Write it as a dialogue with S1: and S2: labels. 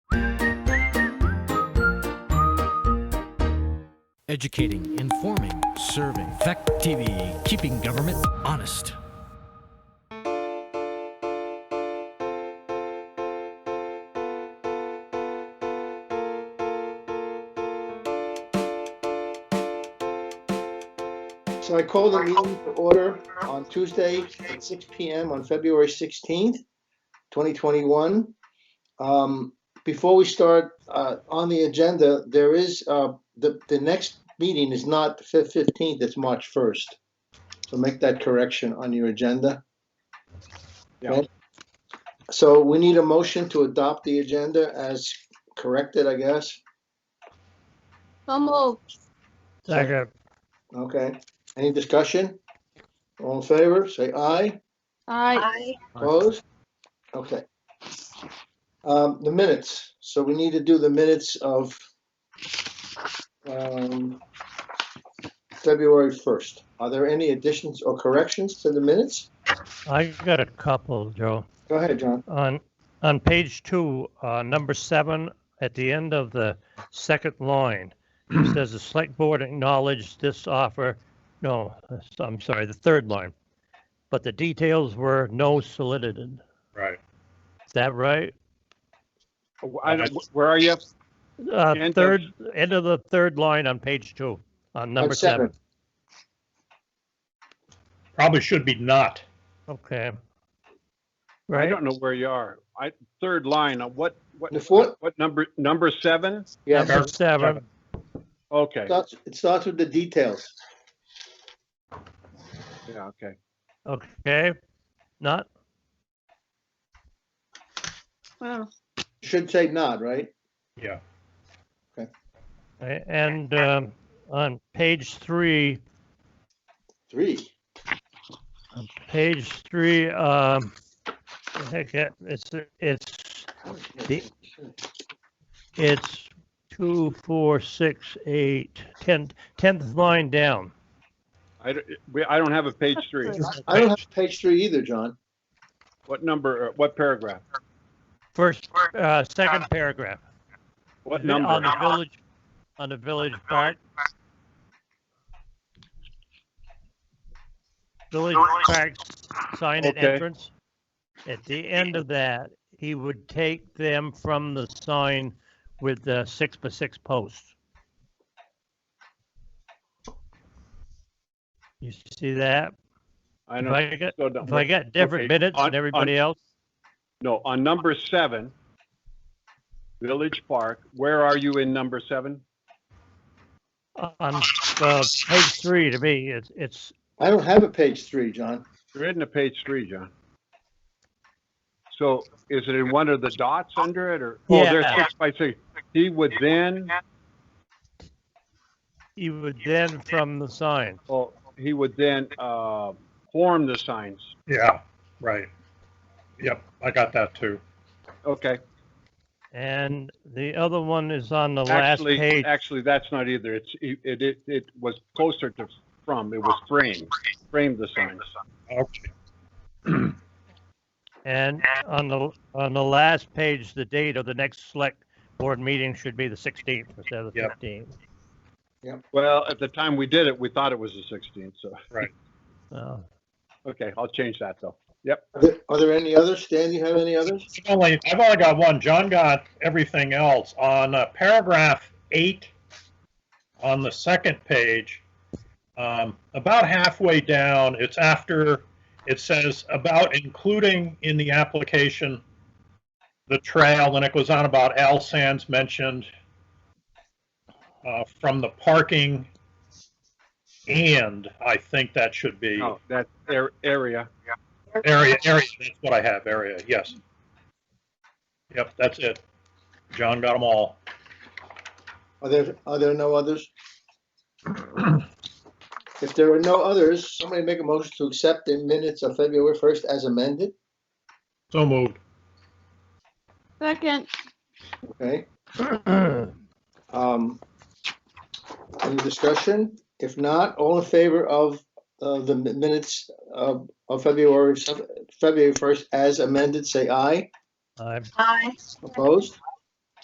S1: educating, informing, serving. Fact TV, keeping government honest.
S2: So I call the meeting to order on Tuesday at 6 PM on February 16th, 2021. Um, Before we start uh, on the agenda, there is, uh, the, the next meeting is not the fif- 15th, it's March 1st. So make that correction on your agenda.
S3: Yeah.
S2: Okay? So we need a motion to adopt the agenda as corrected, I guess.
S4: So moved.
S5: Second,
S2: Okay, any discussion? All in favor, say aye.
S4: Aye.
S2: Opposed? Okay. Um, the minutes, so we need to do the minutes of, um, February first. Are there any additions or corrections to the minutes?
S5: I got a couple, Joe.
S2: Go ahead, John.
S5: On, on page two, uh, number seven, at the end of the second line, it says the select board acknowledged this offer, no, that's- I'm sorry, the third line. But the details were no solicited.
S3: Right.
S5: Is that right?
S3: I don't- where are you?
S5: Uh,
S3: End of-
S5: third, end of the third line on page two, on number seven.
S6: Probably should be not.
S5: Okay.
S3: I
S5: Right,
S3: don't know where you are. I, third line, uh, what, what,
S2: The fourth?
S3: what number, number seven?
S2: Yeah,
S5: number seven,
S3: Okay,
S2: starts- it starts with the details.
S3: yeah, okay.
S5: okay, not,
S4: Wow.
S2: Should say not, right?
S6: Yeah.
S5: right, and, um, on page three,
S2: Three.
S5: On Page three, um, the heck, it- it's, it's, the- it's two, four, six, eight, ten, tenth line down.
S3: I, don't- we- I don't have a page three.
S2: I don't have page three either, John.
S3: What number, uh, what paragraph?
S5: First, uh, second paragraph.
S3: What
S5: On the
S3: number?
S5: village, on the village park. Village park sign at
S3: Okay.
S5: entrance. At the end of that, he would take them from the sign with the six by six posts. You see that?
S3: I
S5: If
S3: know.
S5: I got,
S3: so no-
S5: if I got different
S3: Okay,
S5: minutes
S3: on-
S5: than everybody else,
S3: No, on number seven, Village Park, where are you in number seven?
S5: on, uh, page three to me, it's, it's,
S2: I don't have a page three, John.
S3: You're in the page three, John. So is it in one of the dots under it or? Oh, there's
S5: Yeah.
S3: six by six. He would then,
S5: you would then from the sign.
S3: oh, he would then, uh, form the signs.
S6: Yeah, right. Yep, I got that too.
S3: Okay,
S5: And the other one is on the last
S3: actually,
S5: page.
S3: actually, that's not either. It's, it, it, it was closer to from, it was frame, frame the sign.
S6: Okay.
S5: And on the, on the last page, the date of the next select board meeting should be the 16th instead of the
S6: Yep.
S5: 15th.
S3: Well, at the time we did it, we thought it was the sixteenth, so,
S5: So,
S3: okay, I'll change that though.
S2: Are there- Are there any others? Stan, you have any others?
S6: I've only, I've only got one. John got everything else. On uh, paragraph eight, on the second page, um, about halfway down, it's after, it says about including in the application the trail, and it goes on about Al Sands mentioned uh, from the parking and, I think that should be.
S3: No, Oh, that ar- area,
S6: Area, area, that's what I have, area, yes. Yep, that's it. John got them all.
S2: Are there, are there no others? If there are no others, somebody make a motion to accept the minutes of February 1st as amended,
S6: So moved.
S4: Second.
S2: okay? Um, Any discussion? If not, all in favor of uh, the mi- minutes of of February, February 1st as amended, say aye.
S5: I
S4: Aye.
S2: Opposed?